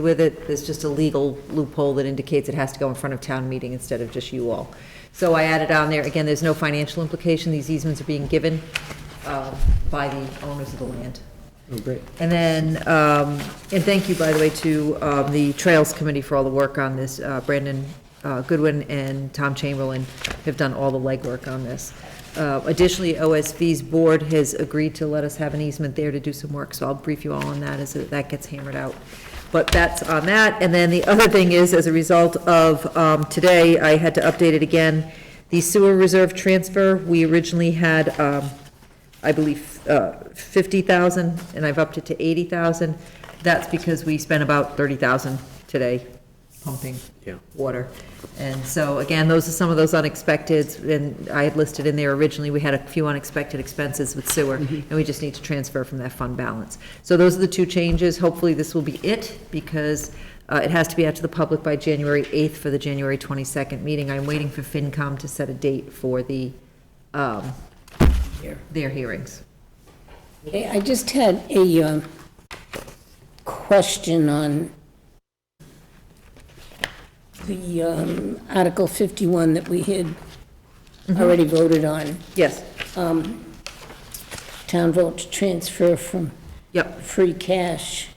with it, there's just a legal loophole that indicates it has to go in front of town meeting instead of just you all. So I added on there, again, there's no financial implication, these easements are being given uh, by the owners of the land. Oh, great. And then, um, and thank you, by the way, to um, the Trails Committee for all the work on this. Uh, Brandon uh, Goodwin and Tom Chamberlain have done all the legwork on this. Uh, Additionally, OSV's board has agreed to let us have an easement there to do some work, so I'll brief you all on that as that gets hammered out. But that's on that. And then the other thing is, as a result of um, today, I had to update it again. The sewer reserve transfer, we originally had um, I believe, uh, 50,000, and I've upped it to 80,000. That's because we spent about 30,000 today pumping Yeah. water. And so, again, those are some of those unexpected, and I had listed in there originally, we had a few unexpected expenses with sewer, and we just need to transfer from that fund balance. So those are the two changes. Hopefully, this will be it, because uh, it has to be out to the public by January 8th for the January 22nd meeting. I'm waiting for FinCom to set a date for the, um, their hearings. Hey, I just had a um, question on the um, Article 51 that we had already voted on, Yes, town vote to transfer from yep, free cash,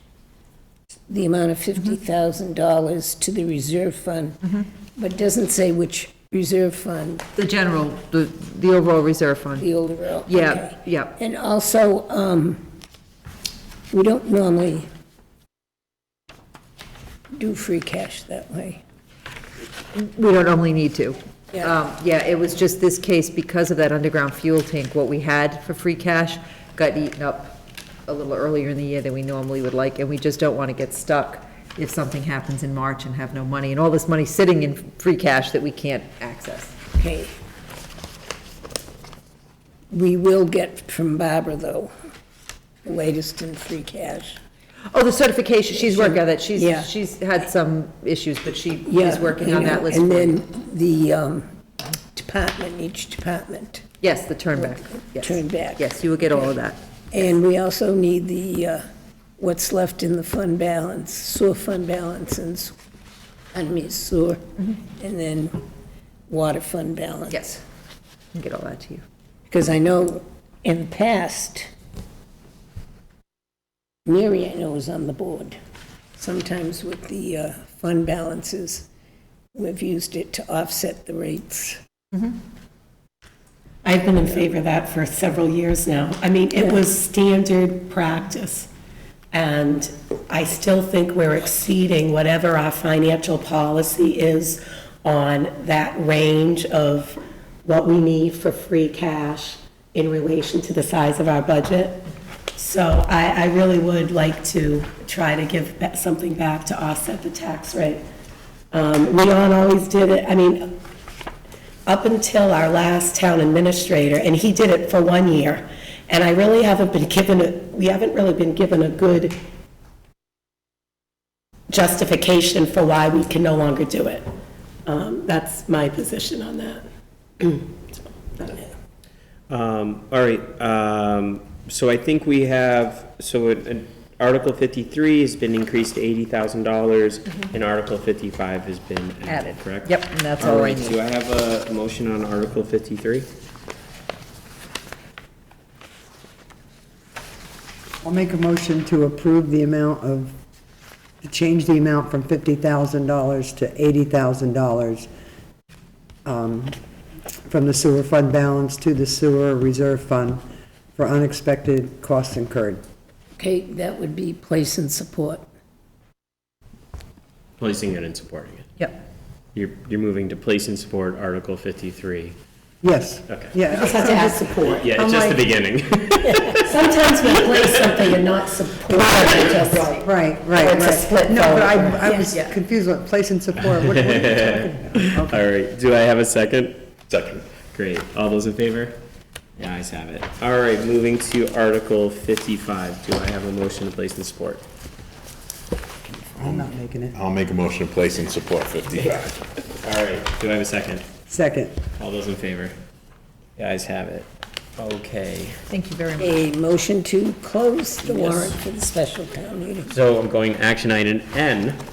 the amount of $50,000 to the reserve fund, but doesn't say which reserve fund, the general, the, the overall reserve fund. the older. Yeah, yeah, And also, um, we don't normally do free cash that way. we don't normally need to. Yeah. Um, Yeah, it was just this case, because of that underground fuel tank, what we had for free cash got eaten up a little earlier in the year than we normally would like, and we just don't want to get stuck if something happens in March and have no money, and all this money sitting in free cash that we can't access. Okay. We will get from Barbara, though, the latest in free cash. Oh, the certification, she's working on that, Yeah. she's, she's had some issues, but she Yeah, is working you on that know, list. And for you. then the um, department, each department. Yes, the turn back, yes. Turn back. Yes, you will get all of that. And we also need the, uh, what's left in the fund balance, sewer fund balance and, s- I mean sewer, and then water fund balance. Yes. I'll Get all that to you. Because I know in the past, Mary, I know, was on the board. Sometimes with the uh, fund balances, we've used it to offset the rates. I've been in favor of that for several years now. I mean, it was standard practice. And I still think we're exceeding whatever our financial policy is on that range of what we need for free cash in relation to the size of our budget. So I, I really would like to try to give ba- something back to offset the tax rate. Um, Leon always did it, I mean, up until our last town administrator, and he did it for one year. And I really haven't been given, a we haven't really been given a good justification for why we can no longer do it. Um, That's my position on that. So, that's it. Um, all right, um, so I think we have, so an- an Article fifty-three has been increased to eighty thousand dollars, and Article fifty-five has been added, Mm-hmm. Added. correct? Yep, and that's all I right, need. Do I have a motion on Article fifty-three? I'll make a motion to approve the amount of, to change the amount from $50,000 to $80,000 um, from the sewer fund balance to the sewer reserve fund for unexpected costs incurred. Okay, that would be place and support. Placing it and supporting it. Yep. You're, you're moving to place and support Article fifty-three. Yes. Okay. Yeah, Just to add support. Oh, Yeah, it's just the beginning. Sometimes we place something and not support it, just, right, right, It's a right. split No, but vote. I, I was confused with place and support. What- what- All right, do I have a second? Second. Great, all those in favor? The ayes have it. All right, moving to Article fifty-five, do I have a motion to place in support? I'm not making it. I'll make a motion to place and support 55. All right, do I have a second? Second. All those in favor? The ayes have it. Okay, Thank you very much. A motion to close the warrant for the special town meeting. so I'm going action item N,